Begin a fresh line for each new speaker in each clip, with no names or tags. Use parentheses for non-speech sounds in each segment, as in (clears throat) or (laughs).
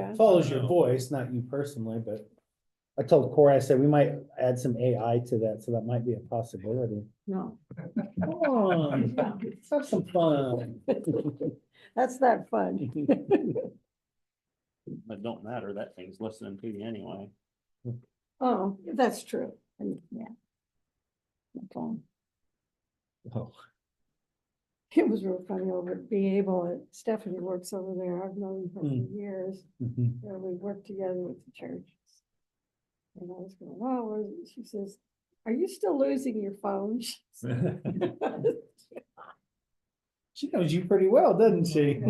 Yeah.
follows your
No.
voice, not you personally, but I told Corey, I said, we might add some AI to that, so that might be a possibility.
No,
Come on, let's have some fun. (laughs)
that's not fun.
But don't matter, that thing's listening to you anyway.
Oh, that's true. And, Yeah. My phone.
Oh.
It was real funny over at Be Able. uh, Stephanie works over there. I've known her for
Mm.
years.
Mhm.
and we worked together with the church. And I was going, wow, where- she says, are you still losing your phone? (laughs) She said,
She knows you pretty well, doesn't she? (laughs)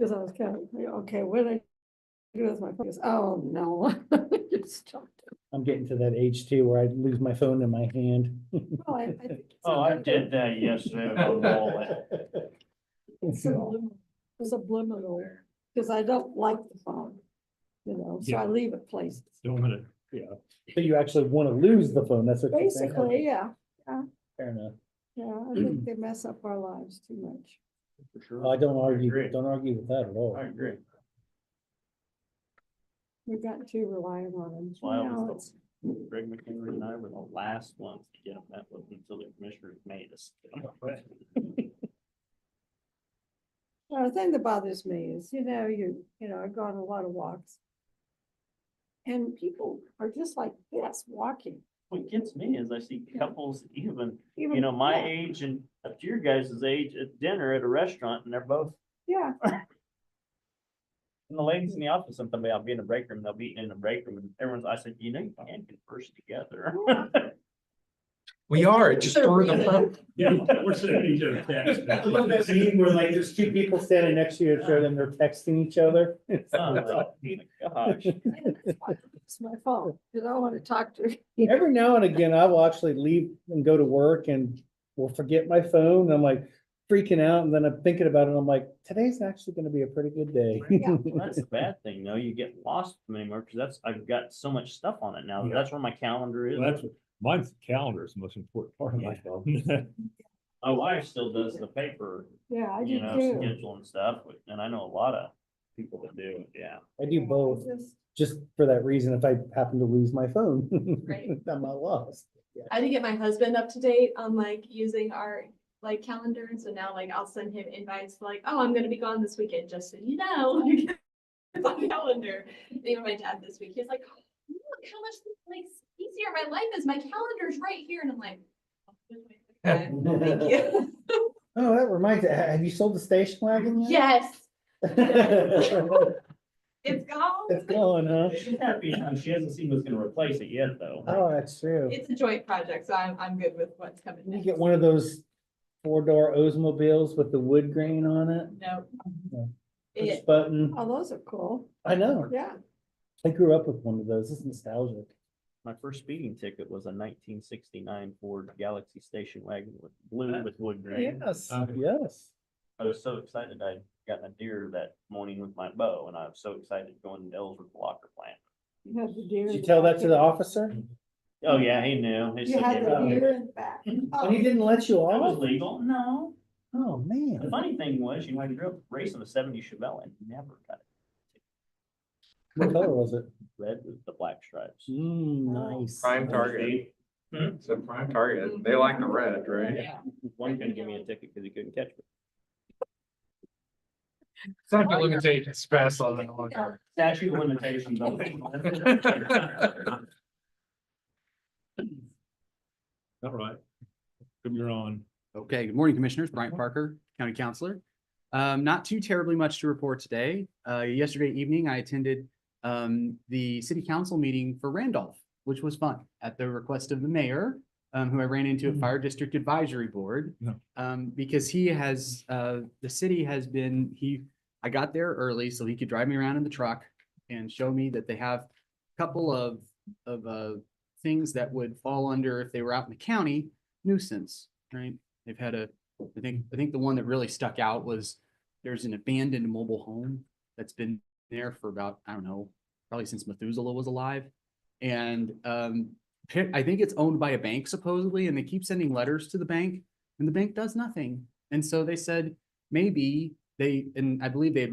Cause I was kind of, okay, what did I do with my phone? She goes, Oh, no. (laughs) You stopped it."
I'm getting to that age too, where I lose my phone in my hand. (laughs)
Well, I- I think it's
Oh, I
another-
did that yesterday with my (laughs) wallet.
It's subliminal. It's subliminal, cause I don't like the phone, you know, so I
Yeah.
leave it places.
Don't wanna.
So you actually want to lose the phone, that's what you're saying?
Basically, yeah,
Fair enough.
yeah, I think
(clears throat)
they mess up our lives too much.
For
Well, I
sure.
don't
agree.
argue, don't argue with that at all.
I agree.
We've gotten too reliant on them.
That's why I
You know,
was,
it's-
Greg McHenry and I were the last ones to get on that one until the commissioners made us.
Well, the thing that bothers me is, you know, you, you know, I go on a lot of walks. And people are just like, yes, walking.
(laughs) What gets me is I see couples even, you
even-
know, my
yeah,
age and up to your guys' age at dinner at a restaurant and they're both,
Yeah,
and the ladies in the office, sometimes I'll be in the break room, they'll be in the break room and everyone's, I said, you know, you can converse together. (laughs)
yeah.
We are, it just
They're
spurred
reading.
the moment.
Yeah, we're sending each other texts.
(laughs) I love that scene where like there's two people standing next to you, and then they're texting each other. (laughs)
Oh, (laughs) my Gosh.
And that's why It's my phone, because I want to talk to. (laughs) you.
Every now and again, I will actually leave and go to work and will forget my phone, and I'm like freaking out, and then I'm thinking about it, and I'm like, today's actually gonna be a pretty good day.
Yeah.
(laughs)
Well, That's the bad thing, though. You get lost from anymore because that's, I've got so much stuff on it now.
Yeah.
That's where my calendar is.
Well, That's, mine's calendar is the most important part of my phone.
My wife still does the paper,
Yeah, I
you
do
know,
too.
schedule and stuff, but- and I know a lot of people that do, it, yeah.
I do
Yeah, I
both,
just-
just for that reason, if I happen to lose my phone,
Right.
(laughs) I'm not lost.
I had to get my husband up to date on like using our like calendar, and so now like I'll send him invites like, oh, I'm gonna be gone this weekend, just so you know. (laughs) like, It's on the calendar. And Even my dad this week, he's like, "Oh, look how much like easier my life is. My calendar's right here, and I'm like. "Okay,
(laughs)
Thank you. (laughs)
Oh, that reminds, me. have you sold the station wagon (laughs) yet?
Yes,
It's
it's gone.
gone,
(laughs)
huh?
She's happy. now. She hasn't seen who's gonna replace it yet, though.
Oh, that's true.
It's a joint project, so I'm I'm good with what's coming.
You
next.
get one of those four-door Oldsmobiles with the wood grain on it,
No.
No.
It,
push button.
Mm-hmm. Oh, those are cool.
I know.
Yeah,
I grew up with one of those. It's nostalgic.
My first speeding ticket was a nineteen sixty-nine Ford Galaxy station wagon with blue with wood grain.
Yes,
Uh,
yes.
I was so excited. I'd gotten a deer that morning with my bow, and I was so excited going to Ellsworth Locker Plant.
you have the deer.
Did
in
you tell that
back
to the
and-
officer?
Oh, yeah, he knew. He
You
said,
had
"Yeah,
the
Oh.
deer in the back.
And he
Oh,
didn't let you
That was
off?
legal. No.
Oh,
The
man.
funny thing was, you know, I grew up racing a seventy Chevelle and never got it.
What color was it?
Red with the black stripes.
Mm, nice.
Prime target. It's a prime target. They like the red, right?
Yeah. One guy give me a ticket because he couldn't catch me.
It's not the limitation, it's fast on that one.
Statute of (laughs) limitations.
(laughs)
on-
(laughs) All right. Come you're on.
Okay, good morning, Commissioners. Brian Parker, County Counselor. Um, not too terribly much to report today. Uh, yesterday evening, I attended um, the city council meeting for Randolph, which was fun at the request of the mayor, um, who I ran into at Fire District Advisory Board.
Yeah.
Um, because he has, uh, the city has been, he, I got there early so he could drive me around in the truck and show me that they have a couple of, of, uh, things that would fall under if they were out in the county nuisance, right? They've had a, I think, I think the one that really stuck out was there's an abandoned mobile home that's been there for about, I don't know, probably since Methuselah was alive. And um, pa- I think it's owned by a bank supposedly, and they keep sending letters to the bank and the bank does nothing. And so they said, maybe They, and I believe they had